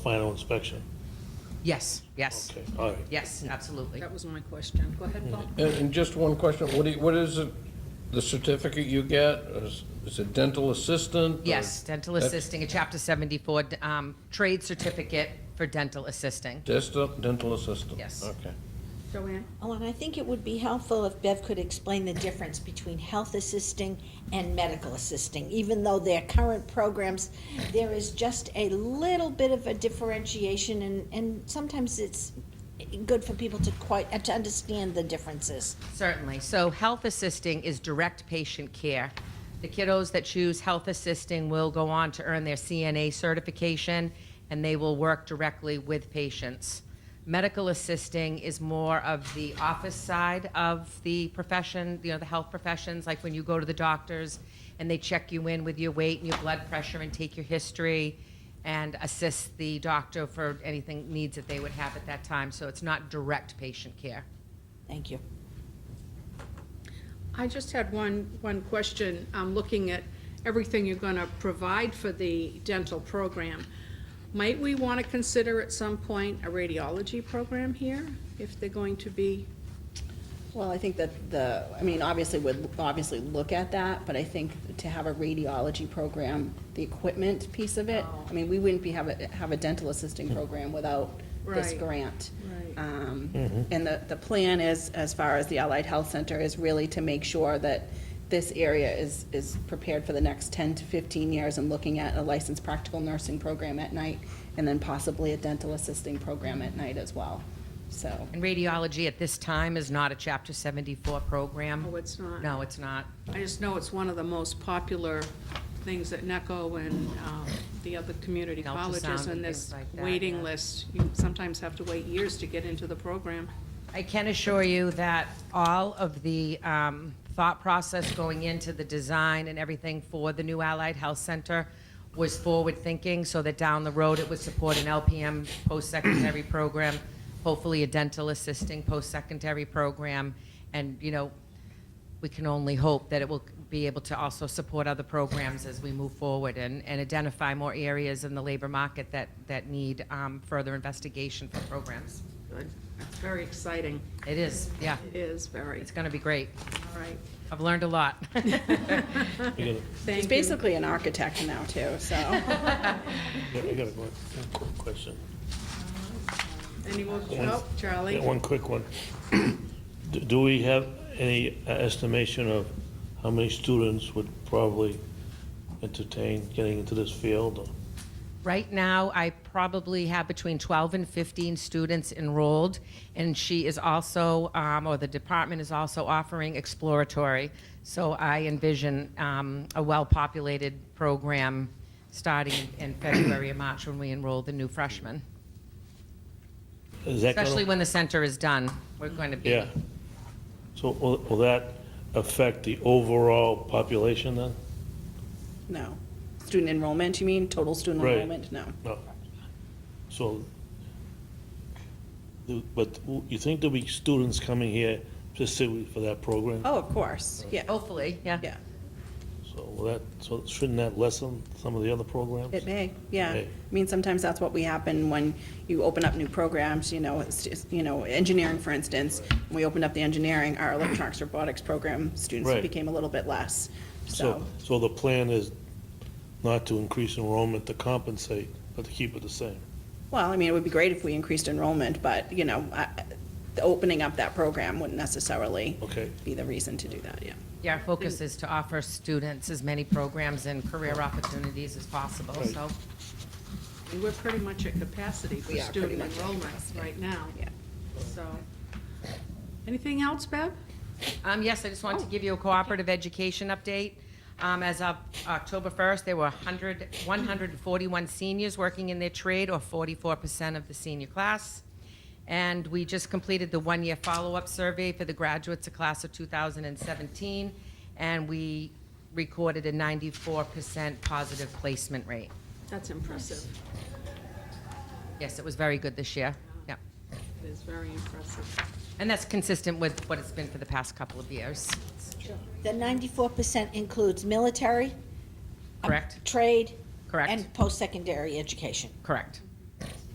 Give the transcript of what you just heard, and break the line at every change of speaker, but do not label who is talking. final inspection?
Yes, yes,
Okay, all right.
yes, absolutely.
That was my question. Go ahead, Paul.
And, and just one question, what do you, what is it, the certificate you get, is, is it dental assistant? or-
Yes, dental
That's-
assisting, a chapter 74 um, trade certificate for dental assisting.
Dental, dental assistant?
Yes.
Okay.
Mm-hmm.
Joanne?
Oh, and I think it would be helpful if Bev could explain the difference between health assisting and medical assisting. Even though they're current programs, there is just a little bit of a differentiation and, and sometimes it's good for people to quite, uh, to understand the differences.
Certainly. So health assisting is direct patient care. The kiddos that choose health assisting will go on to earn their CNA certification, and they will work directly with patients. Medical assisting is more of the office side of the profession, you know, the health professions, like when you go to the doctors and they check you in with your weight and your blood pressure and take your history and assist the doctor for anything needs that they would have at that time. So it's not direct patient care.
Thank you.
I just had one, one question. I'm looking at everything you're going to provide for the dental program. Might we want to consider at some point a radiology program here if they're going to be?
Well, I think that the, I mean, obviously, would obviously look at that, but I think to have a radiology program, the equipment piece of it,
Oh.
I mean, we wouldn't be, have a, have a dental assisting program without this
Right.
grant.
Right.
Um, And the, the plan is, as far as the Allied Health Center, is really to make sure that this area is, is prepared for the next ten to fifteen years and looking at a licensed practical nursing program at night, and then possibly a dental assisting program at night as well, so.
And radiology at this time is not a Chapter 74 program.
Oh, it's not?
No, it's not.
I just know it's one of the most popular things at NECO and um, the other community
Ultrasound
colleges
and
and this
things like that, yeah.
waiting list. You sometimes have to wait years to get into the program.
I can assure you that all of the um, thought process going into the design and everything for the new Allied Health Center was forward-thinking, so that down the road, it would support an LPM post-secondary program, hopefully a dental assisting post-secondary program, and, you know, we can only hope that it will be able to also support other programs as we move forward and, and identify more areas in the labor market that, that need um, further investigation for programs.
Good. That's very exciting.
It is, yeah.
It is very,
It's going to be great.
all right.
I've learned a lot.
We gotta-
Thank
He's
you.
basically an architect now, too, so.
yeah, I got a one quick question.
Any more, oh, Charlie?
Yeah, One quick one. Do- Do we have any uh, estimation of how many students would probably entertain getting into this field?
Right now, I probably have between 12 and 15 students enrolled, and she is also, um, or the department is also offering exploratory. So I envision um, a well-populated program starting in February and March when we enroll the new freshmen,
Is that gonna-
especially when the center is done. We're going to be.
Yeah. So will will that affect the overall population then?
No. Student enrollment, you mean? Total student
Right.
enrollment? No.
No. So, do- but w- you think there'll be students coming here specifically for that program?
Oh, of course, yeah,
Hopefully, yeah.
yeah.
So will that, so shouldn't that lessen some of the other programs?
It may, yeah.
May.
I mean, sometimes that's what we happen when you open up new programs, you know, it's just, you know, engineering, for instance. when We opened up the engineering, our electronics robotics program, students
Right.
became a little bit less,
So,
so,
so the plan is not to increase enrollment to compensate, but to keep it the same?
well, I mean, it would be great if we increased enrollment, but, you know, I- the opening up that program wouldn't necessarily
Okay.
be the reason to do that, yeah.
Yeah, our focus is to offer students as many programs and career opportunities as possible,
Right.
so.
And We're pretty much at capacity for
We are pretty
student
much at
enrollment right now.
Yeah.
So, anything else, Bev?
Um, yes, I just wanted to give you a cooperative education update. Um, as of October 1st, there were 100, 141 seniors working in their trade, or 44% of the senior class. And we just completed the one-year follow-up survey for the graduates of class of 2017, and we recorded a 94% positive placement rate.
That's impressive.
Yes, it was very good this year. Yeah.
It is very impressive.
And that's consistent with what it's been for the past couple of years,
The ninety-four percent includes military, uh,
correct?
trade.
Correct.
And post-secondary education.
Correct.